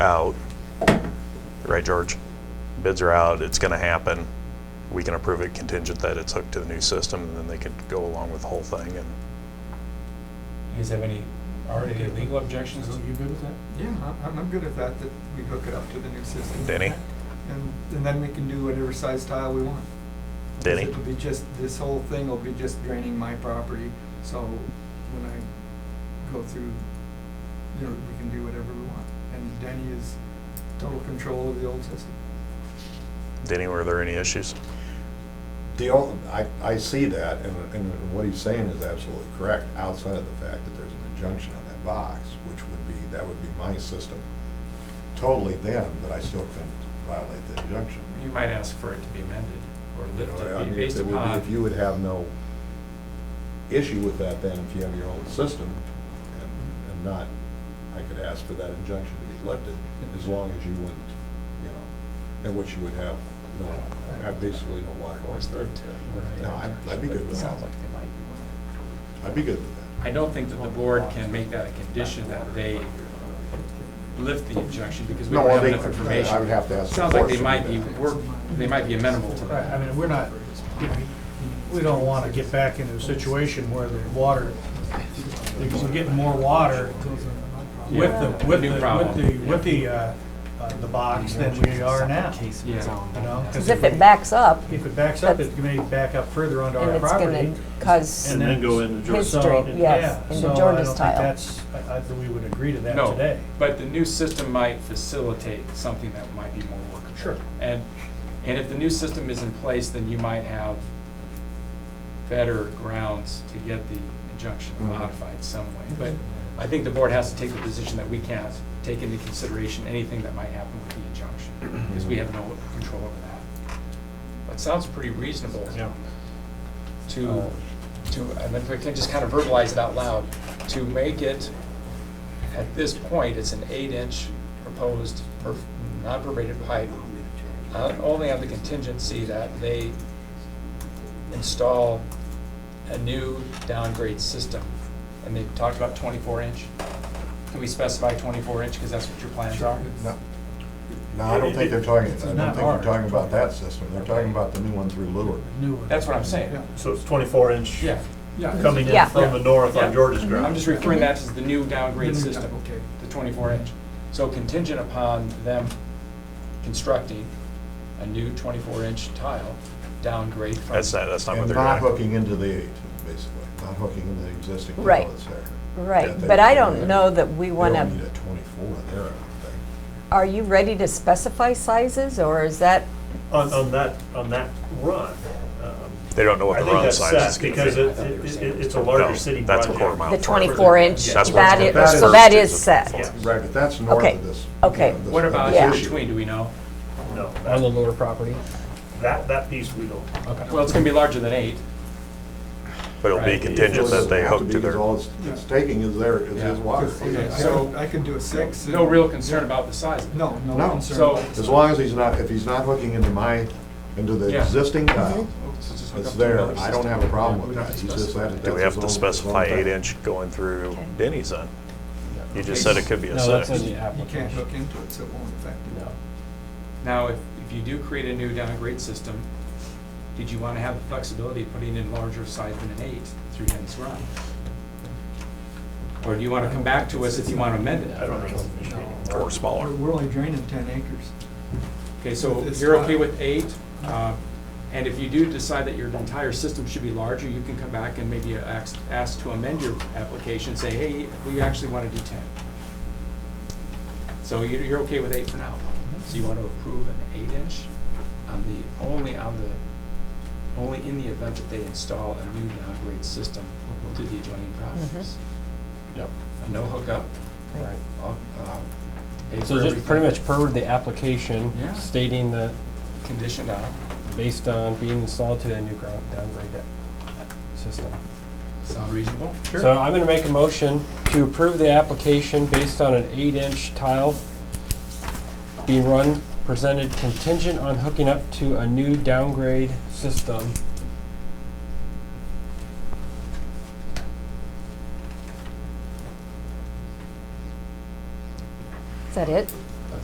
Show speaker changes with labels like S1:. S1: out, right, George? Bids are out, it's gonna happen. We can approve it contingent that it's hooked to the new system, and then they could go along with the whole thing and.
S2: You guys have any, are any legal objections?
S3: So you good with that?
S4: Yeah, I- I'm, I'm good with that, that we hook it up to the new system.
S1: Denny?
S4: And, and then we can do whatever size tile we want.
S1: Denny?
S4: It'll be just, this whole thing will be just draining my property, so when I go through, you know, we can do whatever we want. And Denny is total control of the old system.
S1: Denny, were there any issues?
S5: The only, I, I see that, and, and what he's saying is absolutely correct, outside of the fact that there's an injunction on that box, which would be, that would be my system totally then, but I still couldn't violate the injunction.
S2: You might ask for it to be amended or
S5: You
S2: lifted,
S5: know, I mean,
S2: based
S5: it would be-
S2: upon.
S5: If you would have no issue with that then, if you have your own system, and, and not, I could ask for that injunction to be lifted, as long as you wouldn't, you know, and which you would have, no, I basically no water going through. No, I'd- I'd be good with that. I'd be good with that.
S2: I don't think that the board can make that a condition that they lift the injunction because we
S5: No,
S2: don't
S5: I
S2: have
S5: think
S2: enough information.
S5: I would have to ask the
S2: Sounds like
S5: board
S2: they
S5: to
S2: might
S5: do
S2: be,
S5: that.
S2: work- they might be amenable to
S3: Right, I
S2: that.
S3: mean, we're not, we don't want to get back into a situation where the water, because we're getting more water with the, with the,
S2: New
S3: with
S2: problem.
S3: the, with the, uh, uh, the box than we are now, you
S2: Yeah.
S3: know?
S6: Because if it backs up,
S3: If it backs up, it may back up further onto
S6: and
S3: our
S6: it's
S3: property.
S6: going to cause,
S7: And then go into Georgia.
S6: His- Straight,
S3: So,
S6: yes,
S3: yeah,
S6: into
S3: so I
S6: Jordan's
S3: don't think
S6: tile.
S3: that's- I, I think we would agree to that
S2: No,
S3: today.
S2: but the new system might facilitate something that might be more workable.
S3: Sure.
S2: And, and if the new system is in place, then you might have better grounds to get the injunction
S5: Mhm.
S2: modified some way. But I think the board has to take the position that we can't take into consideration anything that might happen with the injunction, because we have no control over that. That sounds pretty reasonable to, to, and if we can just kind of verbalize it out loud, to make it, at this point, it's an eight-inch proposed per- non-perforated pipe, uh, only on the contingency that they install a new downgrade system. And they talked about twenty-four inch. Can we specify twenty-four inch, because that's what your plans are?
S5: No, No, I don't think they're talking, I don't think
S3: not
S5: they're
S3: ours.
S5: talking about that system, they're talking about the new one through Lure.
S3: New one.
S2: That's what I'm saying.
S4: Yeah.
S7: So it's 24 inch
S2: Yeah, yeah.
S7: coming
S6: Yeah.
S7: in from the north
S2: Yeah. Mm-hmm.
S7: on George's
S2: I'm
S7: ground.
S2: just referring that as the new
S4: Then
S2: downgrade
S4: we-
S2: system.
S4: Okay.
S2: the 24 inch. So contingent upon them constructing a new 24 inch tile downgrade from.
S1: That's not, that's not what
S5: And
S1: they're
S5: not
S1: doing.
S5: hooking into the eight, basically, not hooking into the existing tile
S6: Right.
S5: that's there.
S6: right,
S5: That they-
S6: but I
S5: they-
S6: don't know that we
S5: they
S6: want
S5: don't need
S6: to,
S5: a twenty-four there, I don't
S6: are you ready to specify sizes, or is that,
S7: On, on that, on that run. um,
S1: They don't know what
S7: I
S1: the
S7: think
S1: run
S7: that's
S1: size is
S7: set
S1: gonna
S7: because
S1: be.
S7: it, it, it- it's a
S1: No,
S7: larger city
S1: that's a
S7: project.
S1: quarter mile.
S6: the
S1: Further.
S6: 24 inch?
S2: That's
S1: what-
S6: That is,
S5: that
S6: so
S5: is-
S6: that is
S1: Yeah.
S6: set.
S5: think. Right, but that's north
S6: Okay,
S5: of this.
S6: okay.
S5: of this-
S2: What
S5: of
S2: about
S5: this
S6: Yeah.
S2: in
S5: issue.
S2: between, do we know?
S7: No,
S8: On the
S7: that,
S8: lower property.
S7: that, that piece we don't.
S2: Well, it's gonna be larger than eight.
S1: But it'll be
S2: Right.
S1: contingent that they hook to
S5: Because
S1: their,
S5: All it's- it's taking is their, is
S2: Yeah.
S5: his water.
S4: Yeah, I
S2: So-
S4: could- I could do a six. and-
S2: No real concern about the size. of it.
S4: No, no
S5: No.
S4: concern.
S2: So-
S4: about the
S5: As
S4: size.
S5: long as he's not, if he's not hooking into my, into the
S2: Yeah.
S5: existing tile,
S6: Mm-hmm.
S2: So just hook up
S5: it's
S2: to
S5: there,
S2: another
S5: I don't
S2: system.
S5: have a problem with
S2: We don't
S5: that. He's just that.
S1: do we have
S5: that's his
S1: to
S5: own-
S1: specify
S5: his own
S1: eight
S5: thing.
S1: inch going through
S6: Okay.
S1: Denny's then? You just said it could be a
S8: No, that's
S1: six.
S8: in the
S4: You can't
S8: application.
S4: hook into it, so it won't affect it.
S2: Now, if, if you do create a new downgrade system, did you wanna have the flexibility of putting in larger size than an eight through Dennis Run? Or do you wanna come back to us if you wanna amend
S7: I
S2: it?
S7: don't know.
S1: Or smaller.
S4: We're- We're only draining ten acres.
S2: Okay, so
S4: It's
S2: you're
S4: not-
S2: okay with eight, uh, and if you do decide that your entire system should be larger, you can come back and maybe ask, ask to amend your application, say, hey, we actually want to do ten. So you're, you're okay with eight for now? So you want to approve an eight-inch on the, only on the, only in the event that they install a new downgrade system to the adjoining properties?
S8: Yep.
S2: No hookup?
S8: Right.
S2: uh, uh, pay for
S8: So just pretty
S2: everything,
S8: much per the application
S2: Yeah.
S8: stating that
S2: Conditioned on,
S8: based on being installed to a new ground downgrade deck system.
S2: sound reasonable?
S8: So I'm gonna make a motion to approve the application based on an eight-inch tile being run, presented contingent on hooking up to a new downgrade system.
S6: Is that it?